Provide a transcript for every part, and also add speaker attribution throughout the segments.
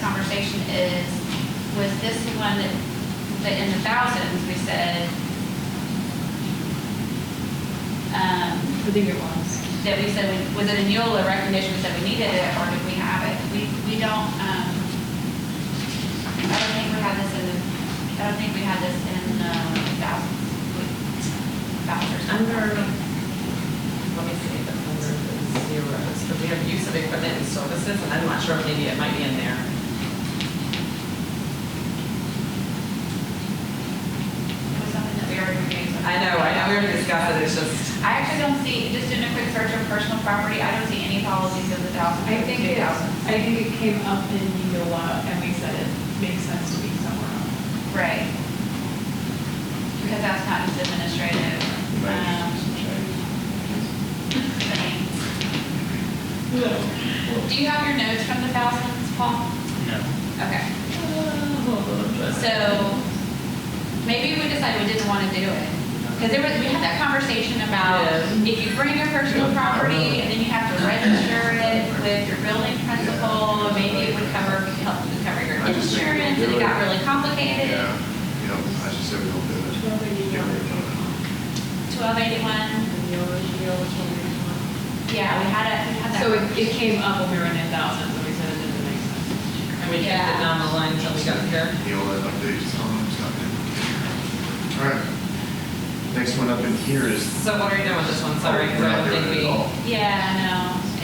Speaker 1: conversation is, was this the one that, that in the thousands, we said, um,
Speaker 2: I think it was.
Speaker 1: that we said, we- was it a Neola recognition, we said we needed it, or did we have it? We, we don't, um, I don't think we had this in the, I don't think we had this in, um, thousands, we- vouchers.
Speaker 3: Under, um, let me see, the under the zeros, because we have use of equipment and services, and I'm not sure, maybe it might be in there.
Speaker 1: Was something that we already reviewed.
Speaker 3: I know, I know, we already discussed it, it's just,
Speaker 1: I actually don't see, just doing a quick search of personal property, I don't see any policies of the thousand,
Speaker 2: I think it,
Speaker 1: thousand.
Speaker 2: I think it came up in Neola and we said it makes sense to be somewhere else.
Speaker 1: Right. Because that's not just administrative. um, things. Do you have your notes from the thousands, Paul?
Speaker 4: No.
Speaker 1: Okay. So maybe we decided we didn't want to do it. Because there was, we had that conversation about
Speaker 3: Yeah.
Speaker 1: if you bring your personal property and then you have to register it with your building principal, maybe it would cover, help you cover your
Speaker 5: I just think we
Speaker 1: insurance, and it
Speaker 5: do
Speaker 1: got
Speaker 5: it.
Speaker 1: really complicated.
Speaker 5: Yeah, you know, I should say we don't do it.
Speaker 1: Twelve eighty-one, yeah, we had it, we had that.
Speaker 2: So it, it came up when we were in the thousands and we said it didn't make sense.
Speaker 3: and we kept it down the line until we got here.
Speaker 5: You know, like they just tell them it's not good. All right. Next one up in here is.
Speaker 3: So what are you doing with this one, sorry, because
Speaker 5: We're
Speaker 3: I
Speaker 5: not
Speaker 3: don't
Speaker 5: doing
Speaker 3: think
Speaker 5: it
Speaker 3: we,
Speaker 5: at all.
Speaker 1: Yeah, no.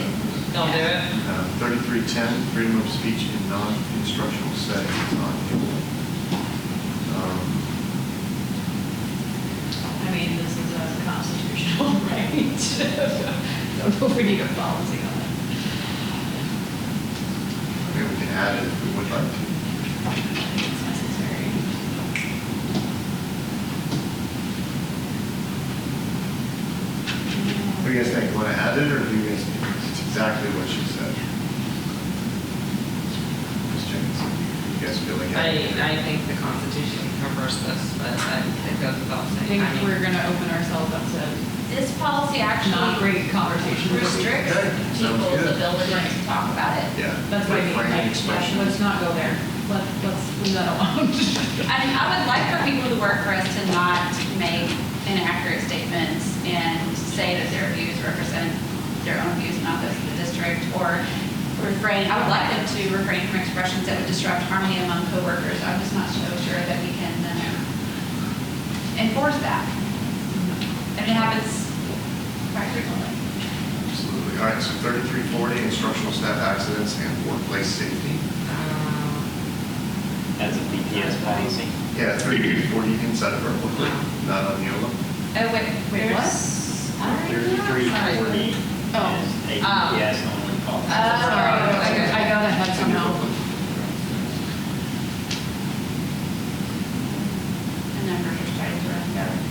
Speaker 1: it-
Speaker 3: don't do it.
Speaker 5: Uh, 3310, freedom of speech in non-instructional settings, not given. Um,
Speaker 2: I mean, this is a constitutional right. So we need a policy on it.
Speaker 5: I mean, we can add it if we would like to.
Speaker 2: I think it's necessary.
Speaker 5: What do you guys think, want to add it, or do you guys, it's exactly what she said? Ms. Jenkinson, you guys feel like?
Speaker 3: I,
Speaker 5: adding it?
Speaker 3: I think the Constitution covers this, but I, it goes without
Speaker 2: I
Speaker 3: saying.
Speaker 2: think
Speaker 3: mean- uh,
Speaker 2: we're gonna open ourselves up to
Speaker 1: This policy
Speaker 2: not
Speaker 1: actually
Speaker 2: great conversation.
Speaker 1: restricts
Speaker 5: Okay, sounds
Speaker 1: people's
Speaker 5: good.
Speaker 1: ability to talk about it.
Speaker 5: Yeah.
Speaker 2: That's what I mean,
Speaker 5: Frank,
Speaker 2: like,
Speaker 5: expression.
Speaker 2: let's not go there. Let, let's leave that alone.
Speaker 1: I mean, I would like for people to work for us to not make inaccurate statements and say that their views represent their own views, not those of the district, or refrain, I would like them to refrain from expressions that would disrupt harmony among coworkers. I'm just not so sure that we can uh, enforce that. And it happens quite frequently.
Speaker 5: Absolutely. All right, so 3340, instructional staff accidents and workplace safety.
Speaker 3: Um,
Speaker 4: As a BPS policy.
Speaker 5: Yeah, 3340 inside of our booklet, not on Neola.
Speaker 1: Oh, wait, wait, what?
Speaker 4: Thirty-three forty is
Speaker 2: Oh. uh,
Speaker 4: a
Speaker 1: Oh.
Speaker 4: BPS only
Speaker 1: Oh,
Speaker 4: policy.
Speaker 1: okay.
Speaker 2: I got ahead
Speaker 5: It's in your
Speaker 2: somehow.
Speaker 5: booklet.
Speaker 1: a number of studies were uncovered.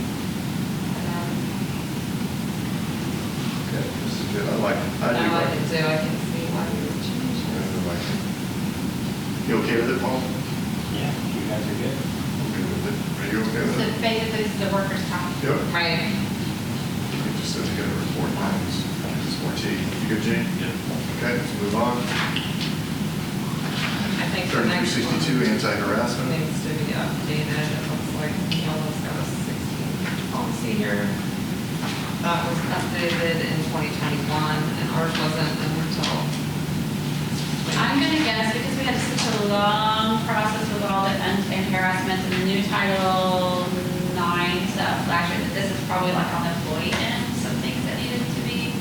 Speaker 1: um,
Speaker 5: Okay, this is good, I like it. I do
Speaker 3: Now I
Speaker 5: like
Speaker 3: can
Speaker 5: it.
Speaker 3: do, I can see why you would change
Speaker 5: I
Speaker 3: this.
Speaker 5: really like it. You okay with it, Paul?
Speaker 4: Yeah, you guys are good.
Speaker 5: Okay with it. Are you okay
Speaker 1: So
Speaker 5: with it?
Speaker 1: basically, this is the workers' comp.
Speaker 5: Yep.
Speaker 3: Right.
Speaker 5: It just says get a report, mine is, it's more T. You good, Gene? Yeah. Okay, let's move on.
Speaker 3: I think the next one
Speaker 5: 3362, anti-harassment.
Speaker 3: needs to be updated. It looks like we almost got a 16 policy here. That uh, was updated in 2021 and ours wasn't until.
Speaker 1: I'm gonna guess, because we had such a long process with all the un- and harassment and the new Title Nine stuff last year, that this is probably like on the employee end, some things that needed to be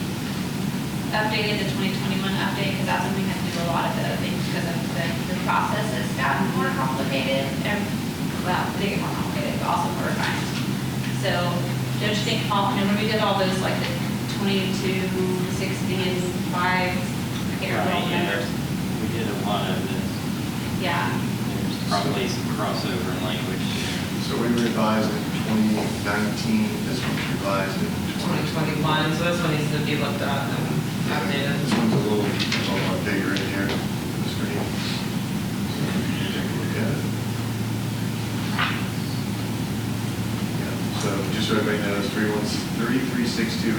Speaker 1: updated, the 2021 update, because that's when we had to do a lot of the things, because of the, the process has gotten more complicated, and, well, they get more complicated, but also more refined. So, don't you think, Paul, I mean, when we did all those, like, the 22, 16, 5, I can't remember all
Speaker 4: Right,
Speaker 1: the
Speaker 4: yeah,
Speaker 1: numbers.
Speaker 4: there's- We did a lot of this.
Speaker 1: Yeah,
Speaker 4: There's probably some crossover in language.
Speaker 5: So we revised in 2019, this one's revised in 2020.
Speaker 3: 2021, so this one needs to be looked at and updated.
Speaker 5: This one's a little, a lot bigger in here, the screen. So we can Take a look at it. Yeah, So just so everybody knows, 313, 3362